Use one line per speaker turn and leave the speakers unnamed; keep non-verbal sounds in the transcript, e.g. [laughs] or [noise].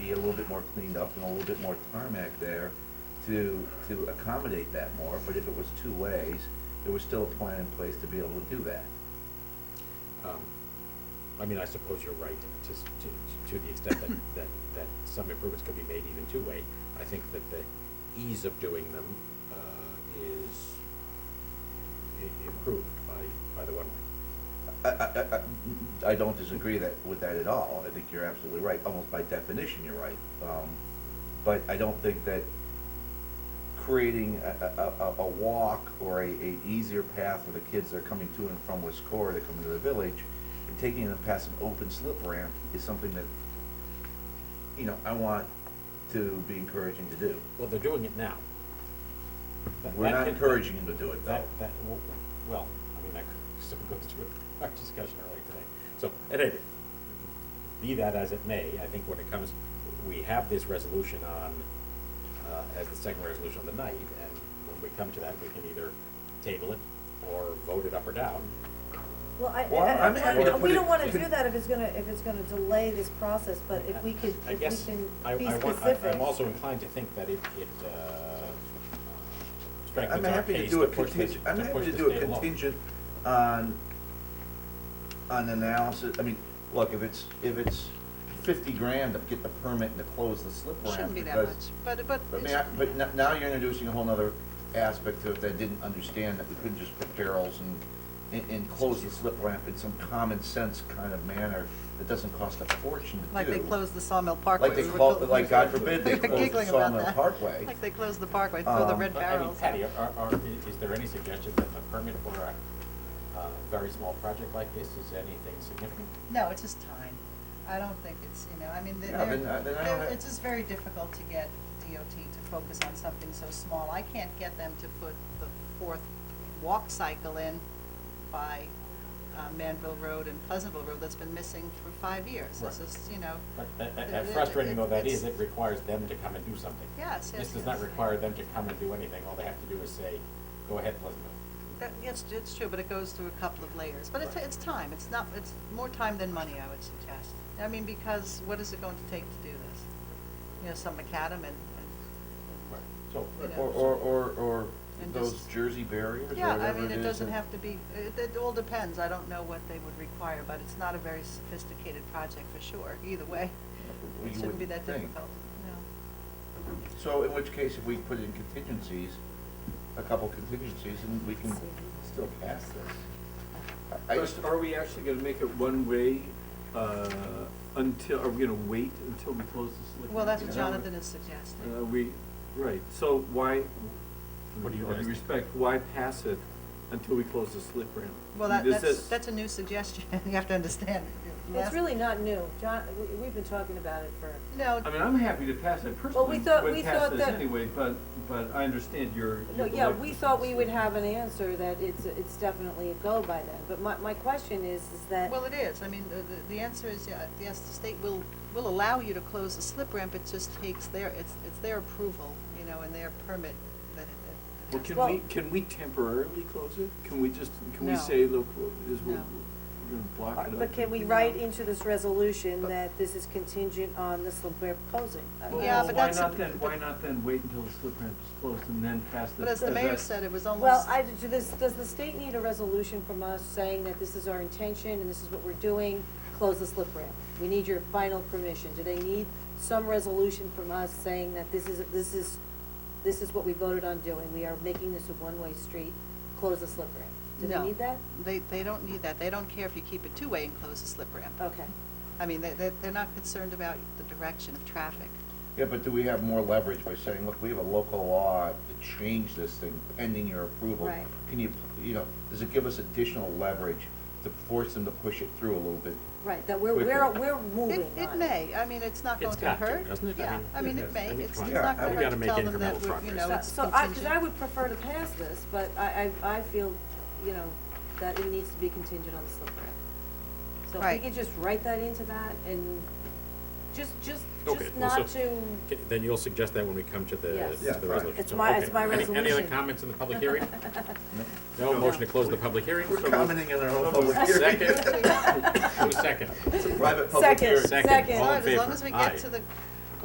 little bit more cleaned up and a little bit more tarmac there to, to accommodate that more, but if it was two ways, there was still a plan in place to be able to do that.
Um, I mean, I suppose you're right, to, s- to, to the extent that, that, that some improvements could be made even two-way. I think that the ease of doing them, uh, is i- improved by, by the one-way.
I, I, I, I don't disagree that, with that at all. I think you're absolutely right. Almost by definition, you're right. Um, but I don't think that creating a, a, a, a walk or a, a easier path for the kids that are coming to and from West Core, that come into the village, and taking them past an open slip ramp is something that, you know, I want to be encouraging to do.
Well, they're doing it now. That-
We're
that
not
can-
encouraging them to do it, though.
That, that, w- well, I mean, that sort of goes to our discussion earlier today. So, at any, rate, be that as it may, I think when it comes, we have this resolution on, uh, as the second resolution of the night, and when we come to that, we can either table it or vote it up or down.
Well, I,
Well,
I- I-
I'm happy
I-
to put
we
it-
don't wanna
you
do
could-
that if it's gonna, if it's gonna delay this process, but if we could,
I
if we
guess I-
can be
I want- I-
specific.
I'm also inclined to think that it, it, uh,
I'm
strengthens our
happy to
case
do
to
a
push this, to push this
contingent, I'm happy to do
date
a
along.
contingent on, on analysis, I mean, look, if it's, if it's fifty grand to get the permit and to close the slip ramp.
Shouldn't be that much,
because-
but, but,
But
it's-
now, but n- now you're introducing a whole nother aspect to it that I didn't understand, that we couldn't just put barrels and, and, and close the slip ramp in some common sense kind of manner that doesn't cost a fortune to do.
like they closed the Sawmill Parkway.
Like they
we were
clo-
built-
like, God forbid,
[laughs]
they
we were
closed the
giggling about
Sawmill
that.
Parkway.
Like they closed the parkway, throw Oh, the
Um,
red
But, I mean,
barrels.
Patty, are, are, i- is there any suggestion that a permit for a, uh very small project like this is anything significant?
No, it's just time. I don't think it's, you know, I mean, they're,
Yeah, then I- then I don't
they're-
have-
it's just very difficult to get DOT to focus on something so small. I can't get them to put the fourth walk cycle in by uh, Manville Road and Pleasantville Road that's been missing for five years. It's
Right.
just, you know,
But a-
It-
a- as
it-
frustrating
it-
though that is,
it's-
it requires them to come and do something.
Yes,
This
yes,
does not
yes.
require them to come and do anything, all they have to do is say, go ahead, Pleasantville.
that, yes, it's true, but it goes through a couple of layers. But it's,
Right.
it's time. It's not, it's more time than money, I would suggest. I mean, because what is it going to take to do this? You know, some macadam and, and
Right. So,
Yeah.
Or, or, or, or
And
those
just-
Jersey barriers or
Yeah, I
whatever
mean, it
is
doesn't
that-
have to be, it, it all depends, I don't know what they would require, but it's not a very sophisticated project for sure, either way.
Well,
It
you
shouldn't be
would
that
think.
difficult, no.
So in which case, if we put in contingencies, a couple contingencies, and we can still pass this. I I
But
just,
are we actually gonna make it one-way, uh, until, are we gonna wait until we close this? liquor
Well, that's what
license?
Jonathan is
Uh,
suggesting.
we, right, so why,
What do you
with
guys think?
respect, why pass it until we close the slip ramp?
Well,
I
that,
mean, this
that's,
is-
that's a new suggestion, [laughs] you have to understand.
It's
Last-
really not new, John, we, we've been talking about it for,
No,
I mean, I'm happy to pass it
Well, we
personally,
thought- we
would pass
thought
this
that-
anyway, but, but I understand your.
no,
your
yeah,
reluctance.
we thought we would have an answer that it's, it's definitely a go by then, but my, my question is, is that,
well, it is, I mean, the, the- the answer is, yeah, yes, the state will, will allow you to close the slip ramp, it just takes their, it's, it's their approval, you know, and their permit that, that.
Well,
has-
can
Well-
we, can we temporarily close it? Can we just, can we
No.
say, look, is, we're,
No.
we're gonna block it up?
Uh, but can we write into this resolution that this is contingent on this little bear posing? I mean,
Well,
Yeah, but that's-
Why not then, why not then wait until the slip ramp is closed and then pass the?
But as the
does
mayor
that-
said, it was almost.
Well, I, do this, does the state need a resolution from us saying that this is our intention and this is what we're doing? Close the slip ramp. We need your final permission. Do they need some resolution from us saying that this is, this is, this is what we voted on doing? We are making this a one-way street. Close the slip ramp. Do they
No.
need that?
They, they don't need that. They don't care if you keep it two-way and close the slip ramp.
Okay.
I mean, they, they- they're not concerned about the direction of traffic.
yeah, but do we have more leverage by saying, look, we have a local law to change this thing pending your approval?
Right.
Can you, you know, does it give us additional leverage to force them to push it through a little bit?
Right, that we're, we're,
Quicker.
we're
It,
moving on.
it may. I mean, it's not
It's
going to
got to,
hurt.
doesn't it? I
Yeah,
mean,
I mean,
it
it
has.
may.
I mean,
It's,
come
it's
on.
not
Yeah, we
going to hurt
gotta
to
make
tell them
incremental
that, we- you
progress.
know,
So-
it's
So I, because I
contingent.
would [laughs] prefer to pass this, but I, I, I feel, you know, that it needs to be contingent on the slip ramp. So if
Right.
we could just write that into that and just, just,
Okay,
just
well, so-
not to,
Okay, Then you'll suggest that when we come to the,
Yes.
to
Yeah,
the
fine.
resolution.
It's
So,
my- it's
okay.
my
Any- Any other
resolution.
comments in the
[laughs]
public
[laughs]
hearing?
No.
No motion to close the public hearing?
We're commenting on our own [laughs] public hearing.
[laughs]
Second, who's second?
It's a private public
Second.
hearing.
Second,
Second.
all in
As long
favor?
as we
Aye.
get to the